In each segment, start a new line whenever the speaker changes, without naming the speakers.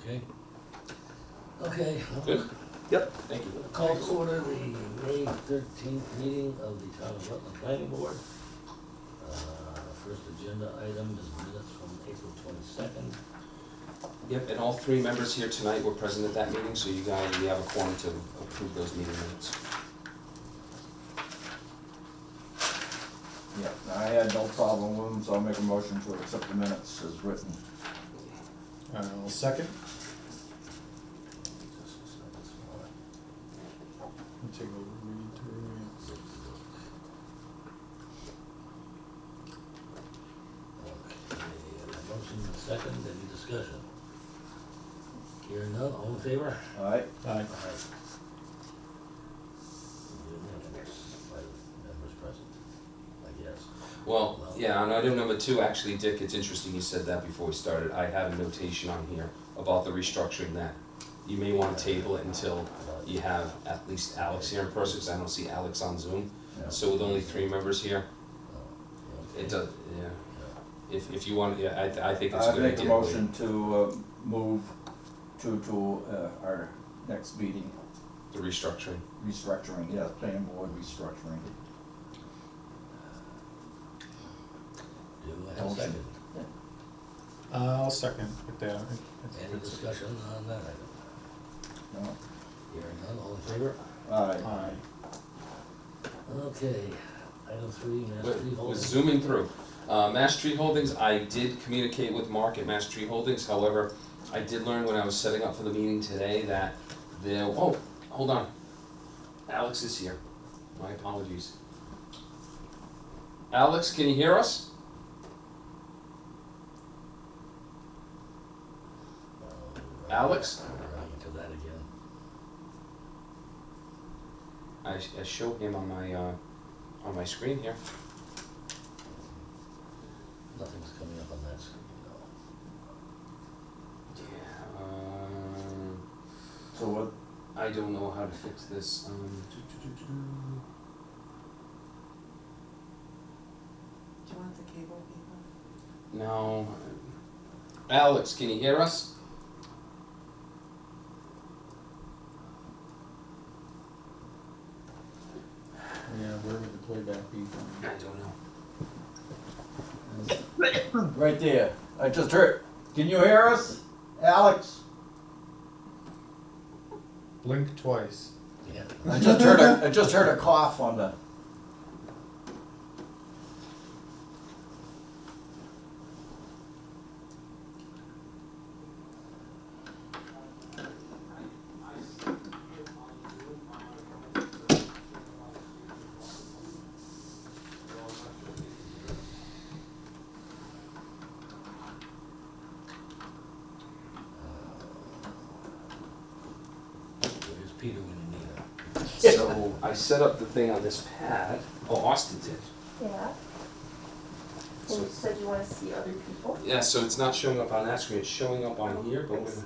Okay,
Okay,
good.
Yep.
Thank you.
call to order the May thirteenth meeting of the Town of Rutland Planning Board. Uh, First agenda item is minutes from April twenty-second.
Yep, and all three members here tonight were present at that meeting, so you guys, you have a quorum to approve those meeting minutes.
Yeah, I had no problem with them, so I'll make a motion to accept the minutes as written.
I'll second, I'll take over, read through,
Okay, a motion and a second, any discussion? Hearing none, all in favor?
Alright,
aye,
Aye. Unanimous by members present, I guess.
Well, yeah, on item number two, actually, Dick, it's interesting you said that before we started. I had a notation on here about the restructuring that you may wanna table it until you have at least Alex here in person, 'cause I don't see Alex on Zoom.
yeah,
So with only three members here,
Oh, yeah,
it does, yeah,
yeah.
if, if you want, yeah, I, th- I think it's a
I
good idea.
make a motion to uh, move to, to uh, our next meeting,
The restructuring.
restructuring, yeah, planning board restructuring.
Do I have a
Motion.
second?
Uh, I'll second with that.
Any discussion on that item?
No?
Hearing none, all in favor?
Alright,
Aye,
Okay, item three, Mass Tree
was
Holdings.
zooming through. Uh, Mass Tree Holdings, I did communicate with Mark at Mass Tree Holdings, however, I did learn when I was setting up for the meeting today that there, oh, hold on. Alex is here, my apologies. Alex, can you hear us? Alex?
Uh, We're running into that again.
I, I show him on my, uh, on my screen here.
Nothing's coming up on that screen, no.
Yeah, um.
so what,
I don't know how to fix this. Um, do, do, do, do.
Do you want the cable people?
No. Alex, can you hear us?
yeah, where would the playback be
I
from?
don't know.
right there, I just heard, can you hear us, Alex?
Blink twice,
Yeah,
I just heard a, I just heard a cough on the,
where's Peter when you need him?
so I set up the thing on this pad. Oh, Austin did.
Yeah, and
So,
you said you wanna see other people?
yeah, so it's not showing up on that screen. It's showing up on here, but
I
we're.
see.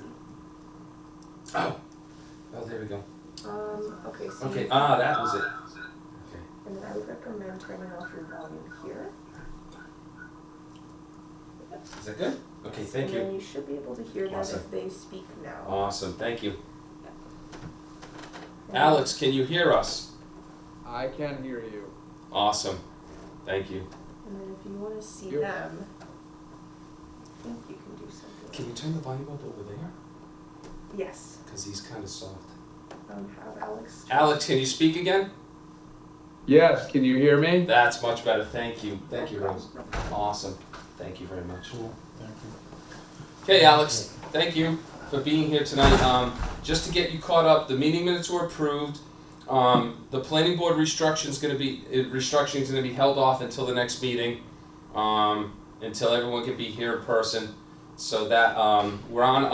Oh. Oh, there we go.
Um, okay, so,
Okay.
you-
Ah, that was it. Okay.
and then I would recommend turning off your volume here.
Is that good? Okay. Thank
And
you.
then you should be able to hear them
Awesome. Uh,
if they speak now.
Awesome. Thank you.
And-
Alex, can you hear us?
I can hear you.
Awesome. Thank you.
And then if you wanna see
You're-
them, I think you can do something.
Can you turn the volume up over there?
Yes,
Because he's kind of soft.
um, have Alex,
Alex, can you speak again?
Yes, can you hear me?
That's much better, thank you, thank you, Rose. Awesome, thank you very much.
cool, thank you.
Okay, Alex, thank you for being here tonight. Um, just to get you caught up, the meeting minutes were approved. Um, the planning board restructuring's gonna be, eh, restructuring's gonna be held off until the next meeting, um, until everyone can be here in person. So that, um, we're on